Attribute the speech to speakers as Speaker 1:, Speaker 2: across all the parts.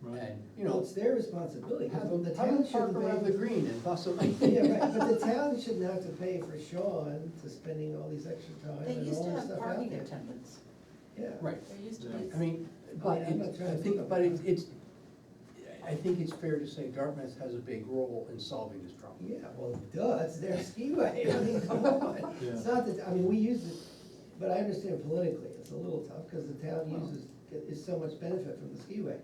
Speaker 1: Right.
Speaker 2: And, you know,
Speaker 3: it's their responsibility,
Speaker 2: have
Speaker 3: the
Speaker 2: them, have
Speaker 3: town
Speaker 2: them
Speaker 3: shouldn't
Speaker 2: park around the
Speaker 3: pay.
Speaker 2: green and bustle.
Speaker 3: Yeah, right, but the town shouldn't have to pay for Sean to spending all these extra time
Speaker 4: They
Speaker 3: and
Speaker 4: used
Speaker 3: all
Speaker 4: to
Speaker 3: this
Speaker 4: have
Speaker 3: stuff out
Speaker 4: parking
Speaker 3: there.
Speaker 4: attendants,
Speaker 3: Yeah.
Speaker 2: Right,
Speaker 4: there used to
Speaker 1: Yeah.
Speaker 4: be.
Speaker 2: I mean, but
Speaker 3: Yeah, I'm not
Speaker 2: it,
Speaker 3: trying
Speaker 2: I
Speaker 3: to
Speaker 2: think,
Speaker 3: talk
Speaker 2: but it-
Speaker 3: about-
Speaker 2: it's, I think it's fair to say Dartmouth has a big role in solving this problem.
Speaker 3: Yeah, well, duh, it's their skiway, I mean, come on, it's not that, I mean, we use it, but I understand politically, it's a little tough, cause the town uses, is so much benefit from the skiway.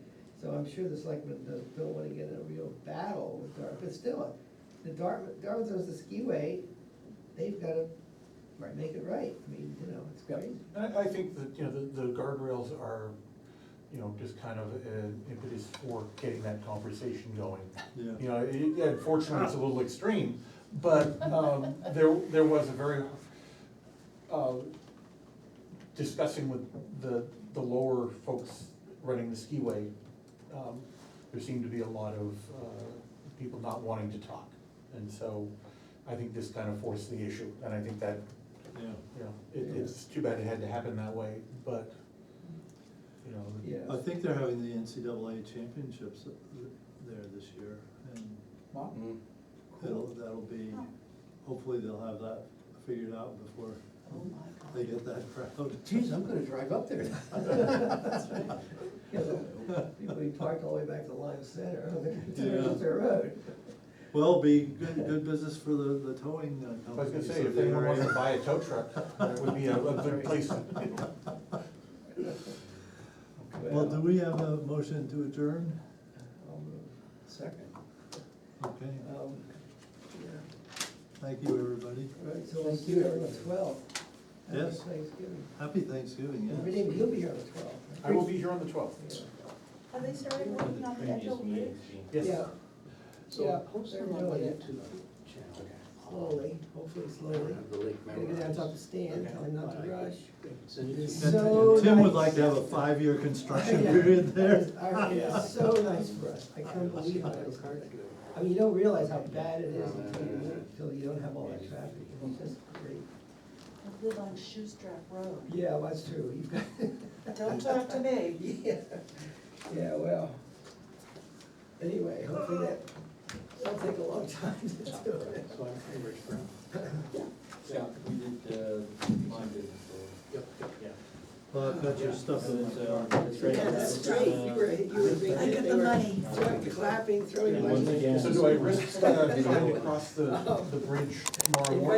Speaker 3: So I'm sure the selectmen don't, don't wanna get in a real battle with Dartmouth, but still, the Dartmouth, Dartmouth owns the skiway, they've gotta
Speaker 2: Right.
Speaker 3: make it right, I mean, you know, it's
Speaker 2: Yep.
Speaker 3: crazy.
Speaker 1: I, I think that, you know, the, the guardrails are, you know, just kind of an impetus for getting that conversation going.
Speaker 5: Yeah.
Speaker 1: You know, it- yeah, unfortunately, it's a little extreme, but, um, there, there was a very, uh, discussing with the, the lower folks running the skiway, um, there seemed to be a lot of, uh, people not wanting to talk. And so I think this kind of forced the issue, and I think that
Speaker 5: Yeah.
Speaker 1: you know, it, it's too bad it had to happen that way, but, you know. the-
Speaker 3: Yeah.
Speaker 5: I think they're having the NCAA championships there this year, and
Speaker 1: Mm-hmm.
Speaker 2: Mm.
Speaker 5: that'll, that'll be, hopefully they'll have that figured out before
Speaker 4: Oh my
Speaker 5: they get
Speaker 4: God.
Speaker 5: that crowd.
Speaker 2: Geez, I'm gonna drive up there.
Speaker 3: People, you park all the way back to Lime Center,
Speaker 5: Yeah.
Speaker 3: it's their road.
Speaker 5: Well, be good, good business for the, the towing uh, company.
Speaker 1: I was gonna say,
Speaker 5: so
Speaker 1: if anyone
Speaker 5: they're-
Speaker 1: wanted to buy a tow truck, that would be a, a good place.
Speaker 5: Well, do we have a motion to adjourn?
Speaker 3: I'll move.
Speaker 2: Second.
Speaker 5: Okay,
Speaker 3: Um, yeah.
Speaker 5: thank you, everybody.
Speaker 3: Right, so we'll
Speaker 2: Thank
Speaker 3: see
Speaker 2: you,
Speaker 3: you on the
Speaker 2: everyone.
Speaker 3: twelfth.
Speaker 5: Yes.
Speaker 3: Thanksgiving.
Speaker 5: Happy Thanksgiving,
Speaker 3: Every
Speaker 5: yes.
Speaker 3: day, you'll be here on the twelfth.
Speaker 1: I will be here on the twelfth.
Speaker 4: Have they started working on the Edgeo Bridge?
Speaker 1: Yes.
Speaker 3: Yeah,
Speaker 2: So
Speaker 3: Yeah,
Speaker 2: post
Speaker 3: there
Speaker 2: on
Speaker 3: we
Speaker 2: the
Speaker 3: go,
Speaker 2: way
Speaker 3: yeah.
Speaker 2: to the channel. Oh,
Speaker 3: slowly, hopefully slowly.
Speaker 2: Have the lake
Speaker 3: Gotta get out, talk to Stan, tell him not to rush.
Speaker 2: Send it in.
Speaker 3: It's so
Speaker 5: Tim would
Speaker 3: nice.
Speaker 5: like to have a five-year construction
Speaker 3: Yeah.
Speaker 5: period there.
Speaker 3: Our- It's so nice for us, I can't believe how nice it is. I mean, you don't realize how bad it is until you, until you don't have all that traffic, it's just great.
Speaker 4: I live on Shoestrap Road.
Speaker 3: Yeah, well, that's true, you've got.
Speaker 4: Don't talk to me.
Speaker 3: Yeah, yeah, well, anyway, hopefully that, that'll take a long time to do it.
Speaker 2: So I'm pretty rich brown.
Speaker 6: Yeah, we did, uh, mine did, so.
Speaker 2: Yep, yep, yeah.
Speaker 5: Well, I've got your stuff in
Speaker 6: It's,
Speaker 5: the
Speaker 6: uh,
Speaker 5: car.
Speaker 6: it's right.
Speaker 3: Yeah, that's straight, you were, you were thinking.
Speaker 4: I get
Speaker 3: they
Speaker 4: the
Speaker 3: were
Speaker 4: money.
Speaker 3: throwing- Clapping, throwing.
Speaker 6: Uh, And once
Speaker 3: money.
Speaker 6: again-
Speaker 1: So do I risk uh, trying to cross the, the bridge tomorrow morning?